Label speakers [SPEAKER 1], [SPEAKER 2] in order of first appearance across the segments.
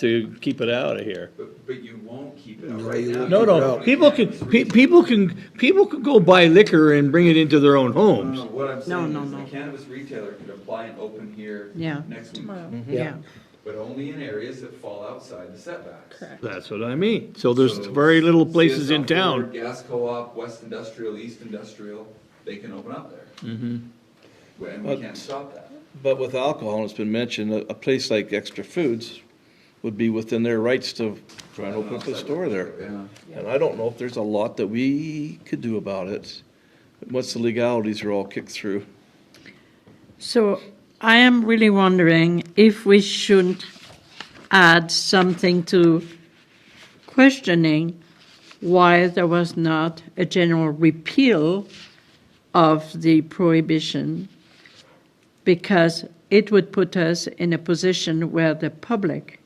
[SPEAKER 1] to keep it out of here.
[SPEAKER 2] But, but you won't keep it up
[SPEAKER 3] No,
[SPEAKER 2] right
[SPEAKER 3] you
[SPEAKER 2] now.
[SPEAKER 3] won't
[SPEAKER 1] No,
[SPEAKER 3] keep it
[SPEAKER 1] no, people
[SPEAKER 3] out.
[SPEAKER 1] can, pe- people can, people can go buy liquor and bring it into their own
[SPEAKER 2] No, no,
[SPEAKER 1] homes.
[SPEAKER 2] what I'm saying
[SPEAKER 4] no,
[SPEAKER 2] is
[SPEAKER 4] no.
[SPEAKER 2] the cannabis retailer could apply and open here
[SPEAKER 4] Yeah.
[SPEAKER 2] next week,
[SPEAKER 4] Tomorrow,
[SPEAKER 3] Yeah.
[SPEAKER 4] yeah.
[SPEAKER 2] but only in areas that fall outside the setbacks.
[SPEAKER 4] Correct.
[SPEAKER 1] That's what I mean. So there's
[SPEAKER 2] So,
[SPEAKER 1] very little places
[SPEAKER 2] CSL
[SPEAKER 1] in town.
[SPEAKER 2] Ford, Gas co-op, West Industrial, East Industrial, they can open up there.
[SPEAKER 1] Mm-hmm.
[SPEAKER 2] And we
[SPEAKER 5] But-
[SPEAKER 2] can't stop that.
[SPEAKER 5] But with alcohol, and it's been mentioned, a, a place like Extra Foods would be within their rights to try and open up a store there.
[SPEAKER 2] Yeah.
[SPEAKER 5] And I don't know if there's a lot that we could do about it, once the legalities are all kicked through.
[SPEAKER 4] So I am really wondering if we shouldn't add something to questioning why there was not a general repeal of the prohibition, because it would put us in a position where the public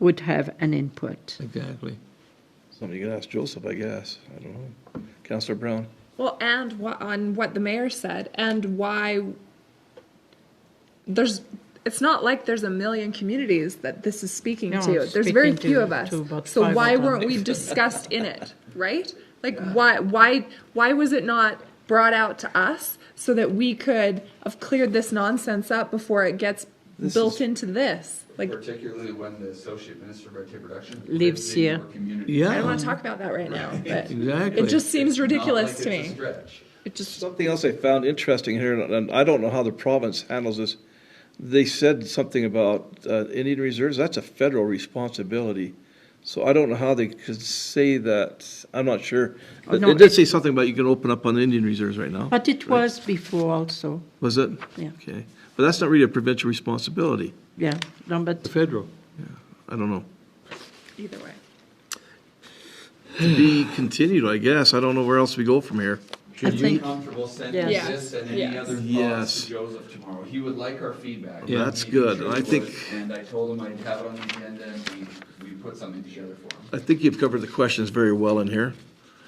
[SPEAKER 4] would have an input.
[SPEAKER 1] Exactly.
[SPEAKER 5] Somebody could ask Joseph, I guess, I don't know. Counselor Brown?
[SPEAKER 6] Well, and wha- on what the mayor said, and why there's it's not like there's a million communities that this is speaking
[SPEAKER 4] No,
[SPEAKER 6] to.
[SPEAKER 4] it's
[SPEAKER 6] There's very
[SPEAKER 4] speaking
[SPEAKER 6] few
[SPEAKER 4] to-
[SPEAKER 6] of us.
[SPEAKER 4] to about
[SPEAKER 6] So
[SPEAKER 4] five
[SPEAKER 6] why
[SPEAKER 4] of them.
[SPEAKER 6] weren't we discussed in it, right? Like why why why was it not brought out to us so that we could have cleared this nonsense up before it gets built into this? Like
[SPEAKER 2] Particularly when the associate minister of Red Tape Production.
[SPEAKER 4] Lives
[SPEAKER 2] in your
[SPEAKER 4] here.
[SPEAKER 2] community.
[SPEAKER 6] I don't
[SPEAKER 1] Yeah,
[SPEAKER 6] want to talk about that right now, but
[SPEAKER 1] exactly.
[SPEAKER 6] it just seems
[SPEAKER 2] Not like
[SPEAKER 6] ridiculous to
[SPEAKER 2] it's a
[SPEAKER 6] me.
[SPEAKER 2] stretch.
[SPEAKER 6] It just
[SPEAKER 5] Something else I found interesting here, and- and I don't know how the province handles this. They said something about uh, Indian reserves, that's a federal responsibility. So I don't know how they could say that, I'm not sure.
[SPEAKER 4] Oh,
[SPEAKER 5] It
[SPEAKER 4] no,
[SPEAKER 5] it did say something about you can open up on Indian reserves right now,
[SPEAKER 4] But it was before also,
[SPEAKER 5] was it?
[SPEAKER 4] Yeah.
[SPEAKER 5] Okay, but that's not really a provincial responsibility,
[SPEAKER 4] yeah, no, but
[SPEAKER 1] Federal.
[SPEAKER 5] I don't know.
[SPEAKER 6] either way.
[SPEAKER 5] To be continued, I guess, I don't know where else we go from here.
[SPEAKER 4] I
[SPEAKER 2] Are you
[SPEAKER 4] think,
[SPEAKER 2] comfortable sending
[SPEAKER 4] Yes.
[SPEAKER 2] this and any
[SPEAKER 6] Yes.
[SPEAKER 2] other thoughts
[SPEAKER 5] Yes.
[SPEAKER 2] to Joseph tomorrow? He would like our feedback.
[SPEAKER 5] Yeah. That's
[SPEAKER 2] He sure
[SPEAKER 5] good. I
[SPEAKER 2] would.
[SPEAKER 5] think-
[SPEAKER 2] And I told him I'd have it on the agenda and we, we put something together for him.
[SPEAKER 5] I think you've covered the questions very well in here.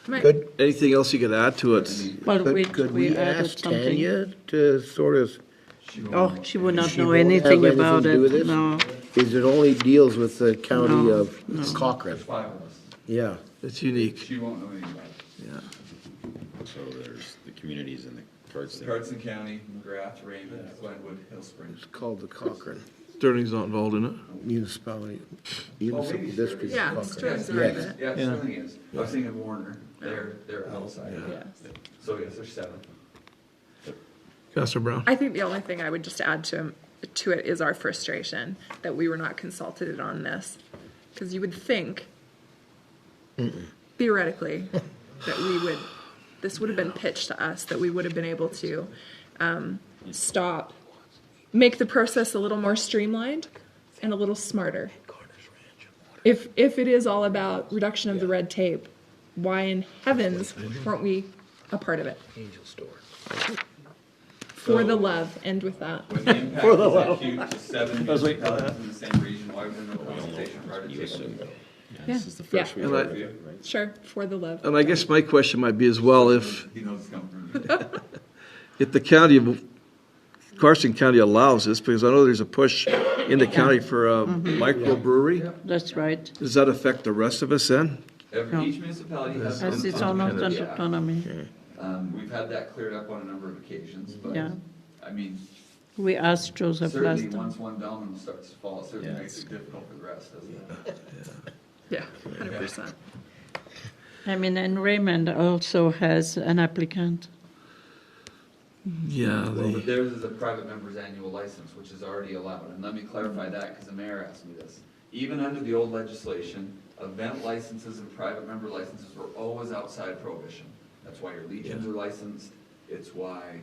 [SPEAKER 6] Right.
[SPEAKER 3] Could,
[SPEAKER 5] Anything else you could add to it?
[SPEAKER 4] well, we,
[SPEAKER 3] could, could
[SPEAKER 4] we
[SPEAKER 3] we
[SPEAKER 4] added
[SPEAKER 3] ask
[SPEAKER 4] something.
[SPEAKER 3] Tanya to sort of,
[SPEAKER 2] She won't
[SPEAKER 4] Oh, she would not
[SPEAKER 3] She
[SPEAKER 4] know
[SPEAKER 3] won't have
[SPEAKER 4] anything
[SPEAKER 3] anything
[SPEAKER 4] about
[SPEAKER 3] to do with
[SPEAKER 4] it,
[SPEAKER 3] this?
[SPEAKER 4] no.
[SPEAKER 3] is it only deals with the county
[SPEAKER 4] No,
[SPEAKER 3] of Cochrane?
[SPEAKER 2] There's five of us.
[SPEAKER 3] Yeah.
[SPEAKER 5] It's unique,
[SPEAKER 2] She won't know anything about it.
[SPEAKER 5] yeah.
[SPEAKER 7] So there's the communities and the cards. there.
[SPEAKER 2] Carson County, McGrath, Raymond, Glenwood, Hill Springs.
[SPEAKER 3] It's called the Cochrane
[SPEAKER 5] Sterling's not involved in it.
[SPEAKER 3] Municipality, Municipal
[SPEAKER 2] maybe
[SPEAKER 3] District
[SPEAKER 6] Yeah,
[SPEAKER 3] of Cochrane.
[SPEAKER 6] Sterling's
[SPEAKER 2] Yes,
[SPEAKER 6] the right bit.
[SPEAKER 2] Yeah, Sterling is. I was thinking of Warner. They're, they're outside.
[SPEAKER 6] Yes.
[SPEAKER 2] So yes, there's seven.
[SPEAKER 5] Counselor Brown?
[SPEAKER 6] I think the only thing I would just add to to it is our frustration that we were not consulted on this, because you would think theoretically that we would this would have been pitched to us that we would have been able to um, stop, make the process a little more streamlined and a little smarter. If if it is all about reduction of the red tape, why in heavens weren't we a part of it?
[SPEAKER 3] Angel Store.
[SPEAKER 2] So-
[SPEAKER 6] For the love, end with that.
[SPEAKER 2] When the impact is that huge, to seven municipalities in the same region, why would no consultation prior to taking?
[SPEAKER 7] This is the
[SPEAKER 6] Yeah.
[SPEAKER 7] first we
[SPEAKER 5] And
[SPEAKER 7] heard.
[SPEAKER 5] I-
[SPEAKER 6] Sure, for the love.
[SPEAKER 5] And I guess my question might be as well, if,
[SPEAKER 2] He knows it's coming from you.
[SPEAKER 5] if the county, of Carson County allows this, because I know there's a push in the county for a microbrewery.
[SPEAKER 4] That's right,
[SPEAKER 5] Does that affect the rest of us then?
[SPEAKER 4] No.
[SPEAKER 2] Every, each municipality has.
[SPEAKER 4] as
[SPEAKER 2] some
[SPEAKER 4] it's
[SPEAKER 2] kind of
[SPEAKER 4] almost an
[SPEAKER 2] act.
[SPEAKER 4] autonomy.
[SPEAKER 2] Um, we've had that cleared up on a number of occasions, but,
[SPEAKER 4] Yeah.
[SPEAKER 2] I mean,
[SPEAKER 4] We asked Joseph
[SPEAKER 2] certainly,
[SPEAKER 4] last time.
[SPEAKER 2] once one domino starts to fall, it certainly makes it difficult for the rest, doesn't it?
[SPEAKER 6] Yeah, hundred percent.
[SPEAKER 4] I mean, and Raymond also has an applicant.
[SPEAKER 5] Yeah.
[SPEAKER 2] Well,
[SPEAKER 5] they-
[SPEAKER 2] but theirs is a private member's annual license, which is already allowed, and let me clarify that, because the mayor asked me this. Even under the old legislation, event licenses and private member licenses were always outside prohibition. That's why your legions are licensed, it's why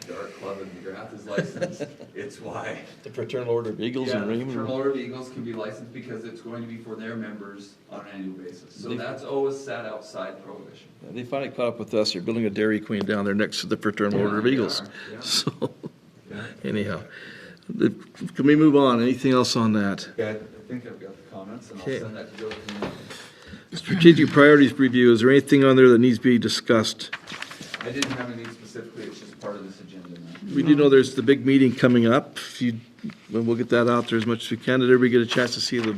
[SPEAKER 2] the dart club in McGrath is licensed, it's why.
[SPEAKER 5] The Fraternal Order of Eagles
[SPEAKER 2] Yeah,
[SPEAKER 5] and
[SPEAKER 2] the Fraternal
[SPEAKER 5] Raymond.
[SPEAKER 2] Order of Eagles can be licensed because it's going to be for their members on an annual basis, so that's always sat outside prohibition.
[SPEAKER 5] They finally caught up with us. They're building a Dairy Queen down there next to the Fraternal
[SPEAKER 2] Yeah,
[SPEAKER 5] Order of
[SPEAKER 2] they
[SPEAKER 5] Eagles.
[SPEAKER 2] are, yeah.
[SPEAKER 5] So
[SPEAKER 2] Yeah.
[SPEAKER 5] anyhow, the- can we move on? Anything else on that?
[SPEAKER 2] Okay, I think I've got the comments, and I'll
[SPEAKER 5] Okay.
[SPEAKER 2] send that to Joseph. in a minute.
[SPEAKER 5] Strategic priorities review, is there anything on there that needs to be discussed?
[SPEAKER 2] I didn't have anything specifically, it's just part of this agenda now.
[SPEAKER 5] We do know there's the big meeting coming up. If you, well, we'll get that out there as much as we can. Did everybody get a chance to see the